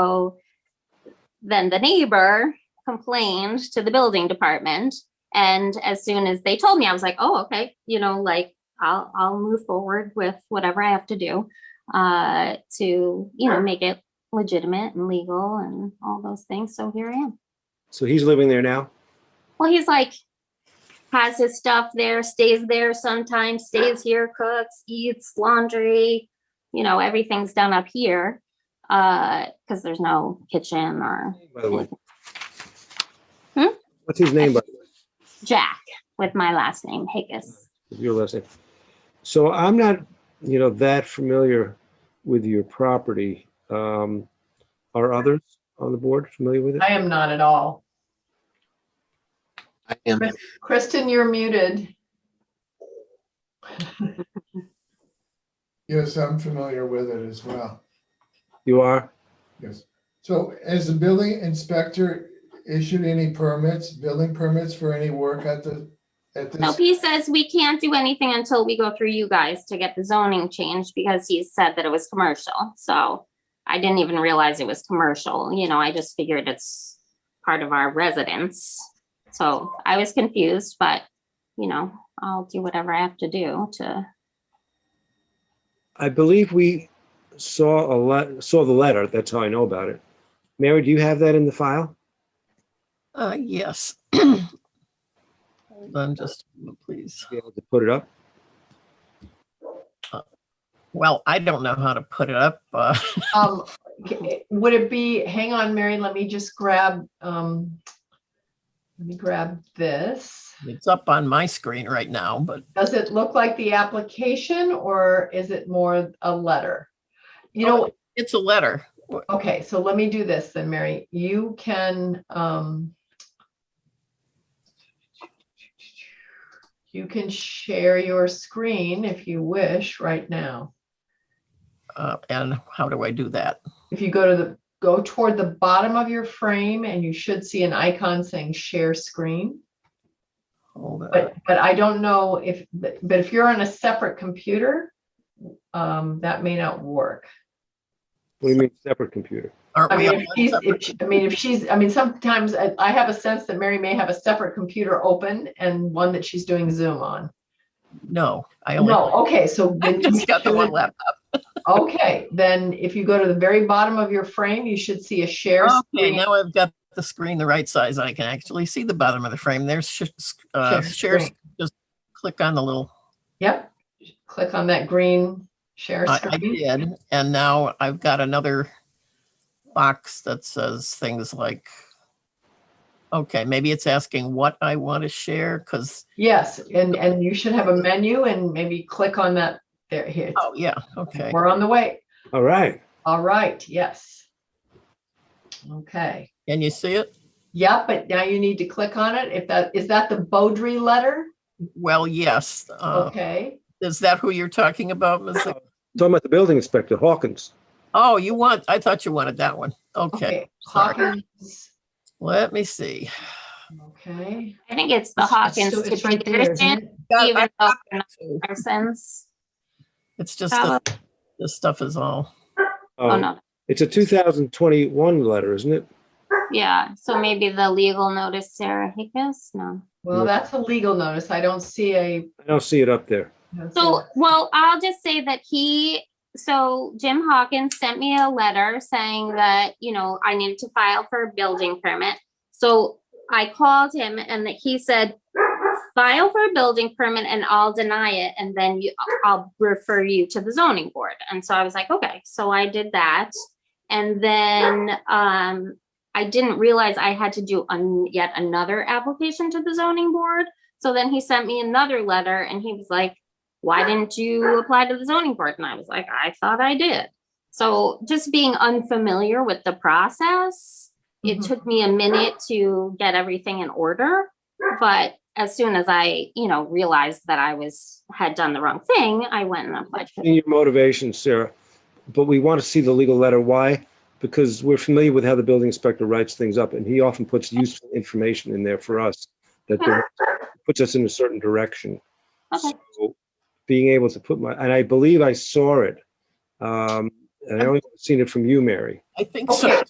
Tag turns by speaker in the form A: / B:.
A: So then the neighbor complained to the building department. And as soon as they told me, I was like, oh, okay, you know, like I'll, I'll move forward with whatever I have to do uh, to, you know, make it legitimate and legal and all those things. So here I am.
B: So he's living there now?
A: Well, he's like, has his stuff there, stays there sometimes, stays here, cooks, eats, laundry, you know, everything's done up here. Uh, cause there's no kitchen or
B: By the way.
A: Hmm?
B: What's his name, by the
A: Jack with my last name, Higgis.
B: way? Your last name. So I'm not, you know, that familiar with your property. Um, Are others on the board familiar with it?
C: I am not at all.
D: I am.
C: Kristen, you're muted.
E: Yes, I'm familiar with it as well.
B: You are?
E: Yes. So has the building inspector issued any permits, building permits for any work at the, at
A: Nope,
E: this?
A: he says we can't do anything until we go through you guys to get the zoning changed because he said that it was commercial. So I didn't even realize it was commercial, you know, I just figured it's part of our residence. So I was confused, but you know, I'll do whatever I have to do to,
B: I believe we saw a lot, saw the letter. That's how I know about it. Mary, do you have that in the file?
F: Uh, yes. Hold on just, a moment, please.
B: Be able to put it up?
F: Well, I don't know how to put it up. uh,
C: Um, g- would it be, hang on, Mary, let me just grab, um, let me grab this.
F: It's up on my screen right now, but
C: Does it look like the application or is it more a letter? You know,
F: Oh, it's a letter.
C: okay, so let me do this then, Mary. You can, um, you can share your screen if you wish right now.
F: Uh, and how do I do that?
C: If you go to the, go toward the bottom of your frame and you should see an icon saying share screen.
F: Hold on.
C: But, but I don't know if, but but if you're on a separate computer, um, that may not work.
B: What do you mean, separate computer?
F: Aren't
C: I
F: we?
C: mean,
F: on
C: if she's,
F: separate-
C: if she- I mean, if she's, I mean, sometimes I, I have a sense that Mary may have a separate computer open and one that she's doing Zoom on.
F: No, I only,
C: No, okay, so.
F: I
C: then
F: just got the
C: you
F: one
C: should-
F: laptop.
C: Okay, then if you go to the very bottom of your frame, you should see a share
F: Okay,
C: screen.
F: now I've got the screen the right size. I can actually see the bottom of the frame. There's, sh- uh,
C: Share
F: shares, just click on the little,
C: Yep, click on that green share
F: Uh, I I
C: screen.
F: did. And now I've got another box that says things like, okay, maybe it's asking what I want to share because,
C: Yes, and, and you should have a menu and maybe click on that there here.
F: oh, yeah, okay.
C: We're on the way.
B: All right.
C: All right, yes. Okay,
F: Can you see it?
C: yeah, but now you need to click on it. If that, is that the Beaudry letter?
F: Well, yes. uh,
C: Okay,
F: Is that who you're talking about? Ms. Zink?
B: Talking about the building inspector, Hawkins.
F: Oh, you want, I thought you wanted that one. Okay,
C: okay.
F: sorry.
C: Hawkins,
F: Let me see.
C: okay.
A: I think it's the Hawkins
C: It's-
A: to
C: it's right there, isn't
A: Peterson,
C: it?
F: Got-
A: even
F: I
A: though
F: got
A: they're not
F: that too.
A: persons.
F: It's just,
A: Oh,
F: that this stuff is all,
A: oh,
B: Um,
A: no,
B: It's a 2021 letter, isn't it?
A: yeah, so maybe the legal notice, Sarah Higgis, no.
C: Well, that's a legal notice. I don't see a.
B: I don't see it up there.
A: So, well, I'll just say that he, so Jim Hawkins sent me a letter saying that, you know, I needed to file for a building permit. So I called him and that he said, file for a building permit and I'll deny it and then you, I'll refer you to the zoning board. And so I was like, okay, so I did that. And then, um, I didn't realize I had to do an yet another application to the zoning board. So then he sent me another letter and he was like, why didn't you apply to the zoning board? And I was like, I thought I did. So just being unfamiliar with the process, it
C: Mhm.
A: took me a minute to get everything in order. But as soon as I, you know, realized that I was, had done the wrong thing, I went and applied. for-
B: In your motivation, Sarah, but we want to see the legal letter. Why? Because we're familiar with how the building inspector writes things up, and he often puts useful information in there for us that dir- puts us in a certain direction.
A: Okay.
B: So Being able to put my, and I believe I saw it. Um, And I only seen it from you, Mary.
F: I think so.